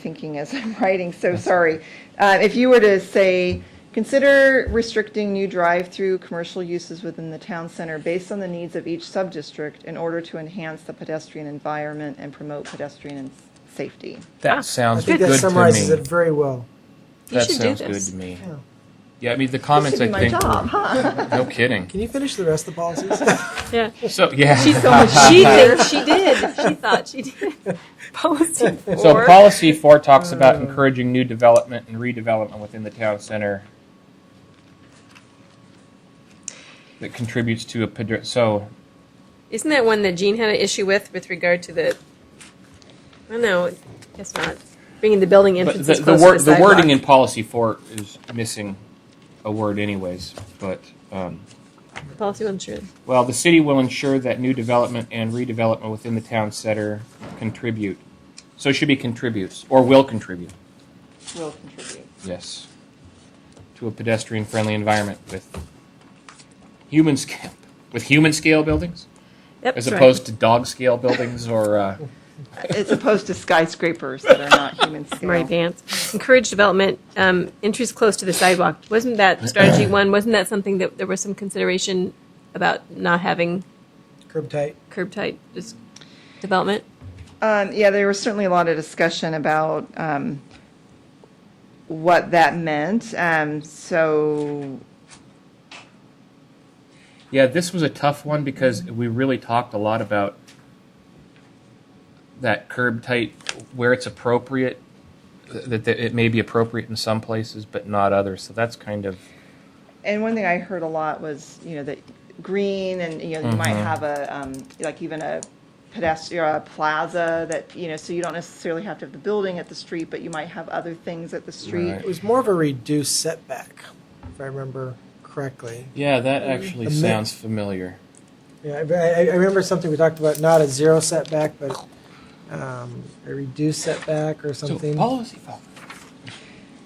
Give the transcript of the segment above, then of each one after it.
thinking as I'm writing, so sorry. Uh, If you were to say, consider restricting new drive-through commercial uses within the town center based on the needs of each sub-district in order to enhance the pedestrian environment and promote pedestrian and safety. That sounds Ah, I think good that to summarizes it me. very well. You That should do sounds good this. to me. Yeah. Yeah, I mean, the comments, I Oh. Should be think, my job, were, huh? no kidding. Can you finish the rest of the policies? Yeah. So, yeah. She's so much She thinks she did. She thought she did. Policy four. So policy four talks Oh. about encouraging new development and redevelopment within the town center that contributes to a, pedri- so, Isn't that one that Gene had an issue with, with regard to the? I don't know. Guess not. Bringing the building but entrances the, the, closer wor- to the wording in sidewalk. policy four is missing a word anyways, but, um, policy one sure. well, the city will ensure that new development and redevelopment within the town center contribute. So it should be contributes, or will contribute, Will contribute. yes, to a pedestrian-friendly environment with human scale, with human scale buildings? Yep, as that's right. opposed to dog scale buildings or uh, As opposed to skyscrapers that are not human scale. Murray Vance. Encourage development, um, entries close to the sidewalk. Wasn't that strategy one? Wasn't that something that there was some consideration about not having Curb tight. curb type just development? Um, yeah, there was certainly a lot of discussion about um, what that meant. Um, so, yeah this was a tough one because we really talked a lot about that curb tight where it's appropriate that, that it may be appropriate in some places but not others so that's kind of and one thing I heard a lot was, you know, that green and, you know, you might have a, um, like even a pedestrian, a plaza that, you know, so you don't necessarily have to have the building at the street, but you might have other things at the street. It was more of a reduced setback, if I remember correctly. yeah that actually A mi- sounds familiar Yeah, I, I I remember something we talked about, not a zero setback, but um, a reduced setback or so something. policy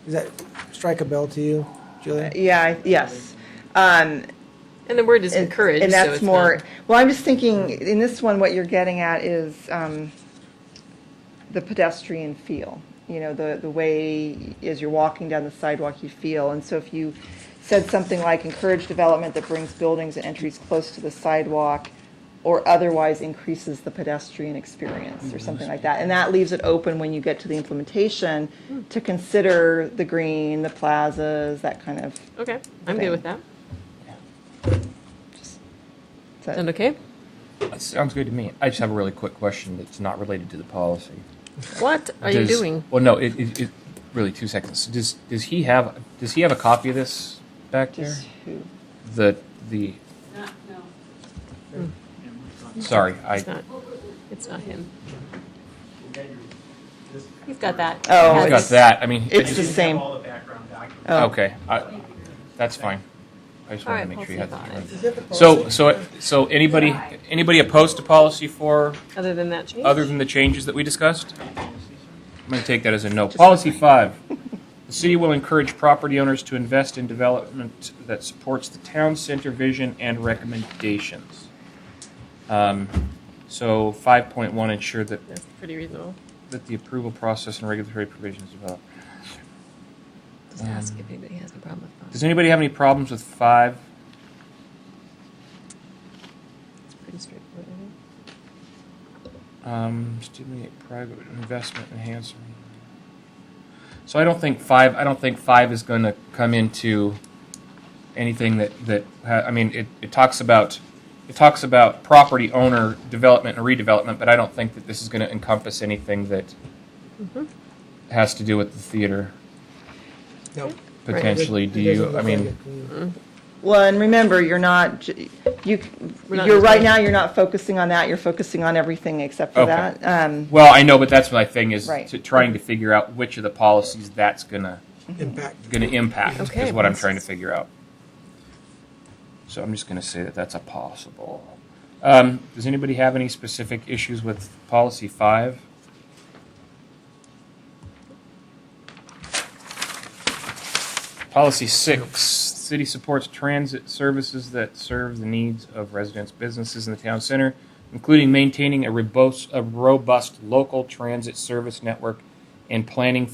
Does that strike a bell to you, Julia? Yeah, I- yes. Um, And the word is and- encourage. And so that's it's more, not- well, I'm just thinking, in this one, what you're getting at is um, the pedestrian feel. You know, the, the way, as you're walking down the sidewalk, you feel. And so if you said something like encourage development that brings buildings and entries close to the sidewalk or otherwise increases the pedestrian experience or Mm-hmm. something like that. And that leaves it open when you get to the implementation Hmm. to consider the green, the plazas, that kind of, okay. I'm good with that. is Sound that- okay? That sounds good to me i just have a really quick question that's not related to the policy What are you Does- doing? Well, no, it, it, it really two seconds. Does does he have does he have a copy of this back there? Does who? The the. Sorry, I. It's not. It's not him. You've got that. Oh, Has I got it. that. I mean, It's I the just- same. all the background documents. Oh. okay. I, that's fine. I just All wanted right, to make sure you we'll had see about that. it. So so so anybody anybody opposed to policy four Other than that change. other than the changes that we discussed? I'm going to take that as a no. Policy five. The city will encourage property owners to invest in development that supports the town center vision and recommendations. Um, so five point one, ensure that, That's pretty reasonable. that the approval process and regulatory provisions develop. Just ask if anybody has a problem with Does that. anybody have any problems with five? It's pretty straightforward. isn't it? Um, stimulate private investment enhancement. So I don't think five. I don't think five is going to come into anything that that. Ha- I mean, it, it talks about it talks about property owner development and redevelopment, but I don't think that this is going to encompass anything that has to do with the theater Nope. potentially. It Do doesn't you? look I like mean, it Mm-hmm. to me. Well, and remember, you're not, j- you, c- We're not you're, right deciding. now, you're not focusing on that, you're focusing on everything except for Okay. that. Um, well, I know, but that's my thing is Right. to trying to figure out which of the policies that's going to. Impact. going to impact Okay. is what I'm trying to figure out. So I'm just going to say that that's a possible. Um, does anybody have any specific issues with policy five? Policy six, city supports transit services that serve the needs of residents, businesses in the town center, including maintaining a robust, a robust local transit service network and planning